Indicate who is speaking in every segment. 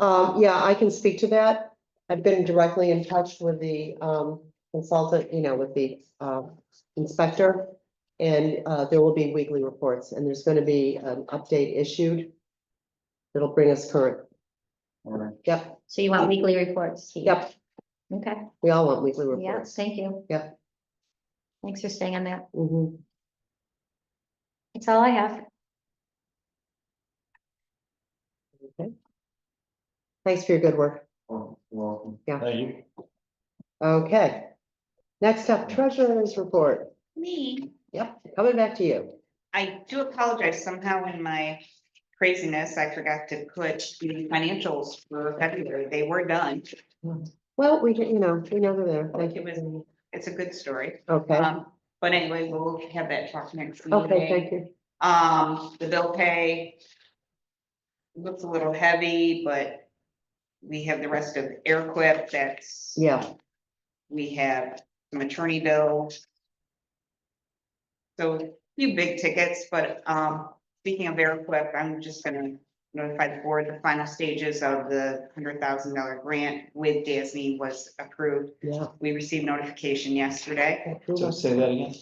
Speaker 1: Um, yeah, I can speak to that. I've been directly in touch with the, um, consultant, you know, with the, uh, inspector. And, uh, there will be weekly reports and there's gonna be an update issued. That'll bring us current.
Speaker 2: All right.
Speaker 1: Yep,
Speaker 3: So you want weekly reports? Steve?
Speaker 1: yep.
Speaker 3: Okay,
Speaker 1: We all want weekly
Speaker 3: yeah,
Speaker 1: reports.
Speaker 3: thank you.
Speaker 1: Yep.
Speaker 3: Thanks for staying on that.
Speaker 1: Mhm.
Speaker 3: That's all I have.
Speaker 1: Okay. Thanks for your good work.
Speaker 2: Well, welcome.
Speaker 1: Yeah.
Speaker 2: Thank you.
Speaker 1: Okay. Next up, treasurer's report.
Speaker 4: Me,
Speaker 1: Yep, coming back to you.
Speaker 4: I do apologize somehow in my craziness, I forgot to put the financials for February. They were done.
Speaker 1: Well, we, can- you know, we know they're there. Thank
Speaker 4: It
Speaker 1: you.
Speaker 4: was- It's a good story.
Speaker 1: Okay,
Speaker 4: Um, but anyway, we'll have that talk next
Speaker 1: okay,
Speaker 4: meeting.
Speaker 1: thank you.
Speaker 4: Um, the bill pay. Looks a little heavy, but we have the rest of air quip that's.
Speaker 1: Yeah,
Speaker 4: We have some attorney bills. So a few big tickets, but um, speaking of Airquip, I'm just gonna notify the board, the final stages of the hundred thousand dollar grant with DSE was approved.
Speaker 1: yeah.
Speaker 4: We received notification yesterday.
Speaker 2: So say that again.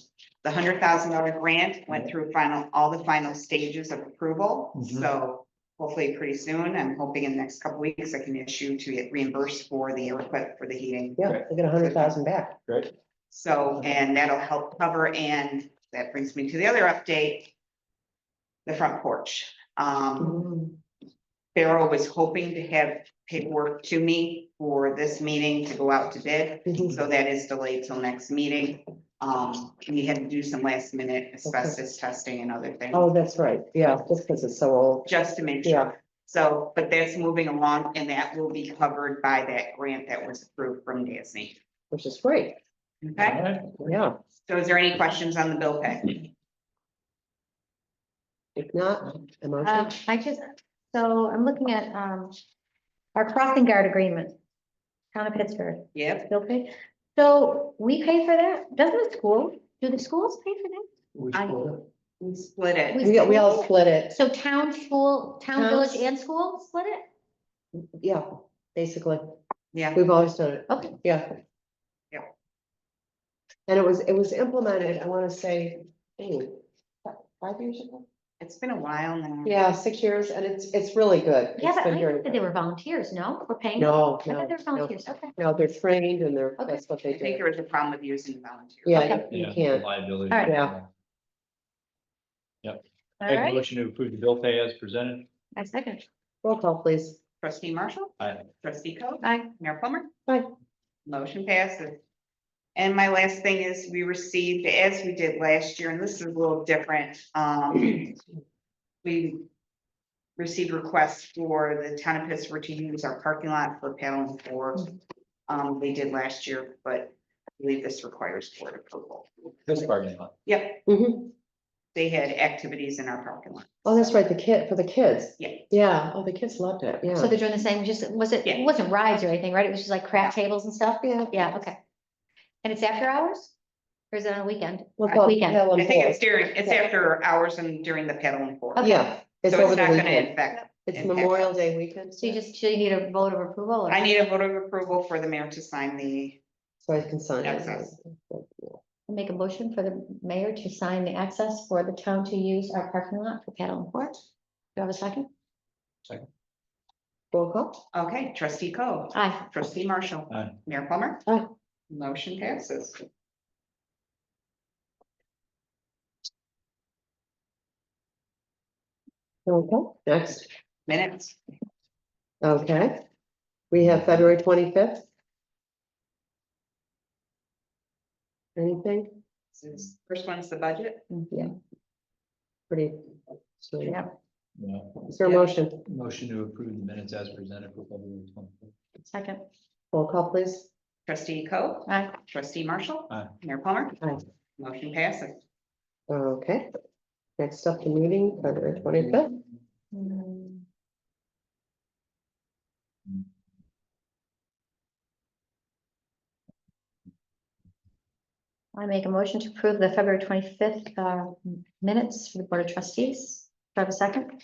Speaker 4: The hundred thousand dollar grant went through final, all the final stages of approval,
Speaker 2: Mhm.
Speaker 4: so hopefully pretty soon. I'm hoping in the next couple weeks I can issue to get reimbursed for the Airquip for the heating.
Speaker 1: Yeah, they get a hundred thousand back.
Speaker 2: Great.
Speaker 4: So, and that'll help cover, and that brings me to the other update. The front porch.
Speaker 1: Mm-hmm.
Speaker 4: Um,
Speaker 3: Mm-hmm.
Speaker 4: Farrell was hoping to have paperwork to me for this meeting to go out to bid,
Speaker 1: Mhm.
Speaker 4: so that is delayed till next meeting. Um, we had to do some last minute asbestos testing and other things,
Speaker 1: Oh, that's right, yeah, just because it's so old.
Speaker 4: just to make
Speaker 1: Yeah.
Speaker 4: sure. So, but that's moving along, and that will be covered by that grant that was approved from Disney.
Speaker 1: Which is great,
Speaker 4: Okay,
Speaker 1: Mm-hmm.
Speaker 2: All right.
Speaker 1: yeah.
Speaker 4: so is there any questions on the bill pay?
Speaker 1: If not, a motion.
Speaker 3: Um, I just, so I'm looking at, um, our crossing guard agreement. Town of Pittsburgh,
Speaker 4: Yep.
Speaker 3: bill pay. So we pay for that? Doesn't the school, do the schools pay for that?
Speaker 2: We
Speaker 4: I-
Speaker 2: should-
Speaker 4: We split it.
Speaker 1: We, we all split it,
Speaker 3: So town, school, town, village
Speaker 1: Towns.
Speaker 3: and school split it?
Speaker 1: yeah, basically.
Speaker 4: Yeah,
Speaker 1: We've always done it,
Speaker 3: Okay,
Speaker 1: yeah.
Speaker 4: Yeah.
Speaker 1: And it was, it was implemented, I want to say, hey, five years ago?
Speaker 4: it's been a while now.
Speaker 1: Yeah, six years, and it's, it's really good.
Speaker 3: yeah,
Speaker 1: It's
Speaker 3: but
Speaker 1: been very
Speaker 3: I thought that
Speaker 1: good.
Speaker 3: they were volunteers, no? We're paying? them?
Speaker 1: No,
Speaker 3: I
Speaker 1: no,
Speaker 3: thought they were
Speaker 1: no,
Speaker 3: volunteers, okay.
Speaker 1: no, they're trained and they're,
Speaker 3: Okay.
Speaker 1: that's what
Speaker 4: I
Speaker 1: they
Speaker 4: think
Speaker 1: do.
Speaker 4: there was a problem with using volunteers.
Speaker 1: Yeah,
Speaker 3: Okay.
Speaker 1: you
Speaker 2: yeah,
Speaker 1: can't,
Speaker 2: Liability.
Speaker 3: All right.
Speaker 1: Yeah.
Speaker 3: All
Speaker 2: Make a
Speaker 3: right,
Speaker 2: motion to approve the bill pay as presented.
Speaker 3: I second.
Speaker 1: roll call, please.
Speaker 4: Trustee Marshall,
Speaker 2: Aye.
Speaker 4: trustee Coe,
Speaker 3: Aye.
Speaker 4: Mayor Plummer.
Speaker 1: Aye.
Speaker 4: Motion passes. And my last thing is we received, as we did last year, and this is a little different, um. We received requests for the town of Pittsburgh to use our parking lot for paddling for.
Speaker 1: Mm.
Speaker 4: Um, they did last year, but I believe this requires board approval.
Speaker 2: This bargaining lot.
Speaker 4: Yep,
Speaker 1: Mhm.
Speaker 4: they had activities in our parking lot.
Speaker 1: Oh, that's right, the kid, for the kids.
Speaker 4: Yeah.
Speaker 1: Yeah, oh, the kids loved it, yeah.
Speaker 3: So they're doing the same, just, was it,
Speaker 4: Yeah.
Speaker 3: it wasn't rides or anything, right? It was just like craft tables and stuff?
Speaker 1: Yeah.
Speaker 3: Yeah, okay. And it's after hours? Or is it on a weekend?
Speaker 1: We'll
Speaker 3: Uh,
Speaker 1: call it
Speaker 3: Weekend,
Speaker 1: Helen
Speaker 4: I think
Speaker 1: Hall.
Speaker 4: it's during, it's after hours and during the paddling board.
Speaker 3: Okay.
Speaker 1: Yeah, it's
Speaker 4: So
Speaker 1: over
Speaker 4: it's
Speaker 1: the
Speaker 4: not gonna
Speaker 1: weekend.
Speaker 4: affect,
Speaker 1: It's
Speaker 4: impact us.
Speaker 1: Memorial Day weekend.
Speaker 3: so you just, so you need a vote of approval? or-
Speaker 4: I need a vote of approval for the mayor to sign the,
Speaker 1: So I can sign it.
Speaker 4: Access.
Speaker 3: Make a motion for the mayor to sign the access for the town to use our parking lot for paddle and port. Do you have a second?
Speaker 1: Roll call.
Speaker 4: okay, trustee Coe,
Speaker 3: Aye.
Speaker 4: trustee Marshall.
Speaker 2: Aye.
Speaker 4: Mayor Plummer.
Speaker 1: Aye.
Speaker 4: Motion passes.
Speaker 1: Okay, next,
Speaker 4: Minutes,
Speaker 1: okay. We have February twenty-fifth. Anything?
Speaker 4: This is- first one's the budget.
Speaker 1: Yeah. Pretty. sweet.
Speaker 3: Yeah.
Speaker 2: Yeah.
Speaker 1: Is there a motion?
Speaker 2: Motion to approve the minutes as presented for February twenty.
Speaker 3: Second.
Speaker 1: Roll call, please.
Speaker 4: Trustee Coe,
Speaker 3: Aye.
Speaker 4: trustee Marshall.
Speaker 2: Aye.
Speaker 4: Mayor Plummer.
Speaker 1: Aye.
Speaker 4: Motion passes.
Speaker 1: Okay. Next up, the meeting, February twenty-fifth.
Speaker 3: Mm, I make a motion uh, to approve the February twenty-fifth minutes for the Board of Trustees. Do I have a second?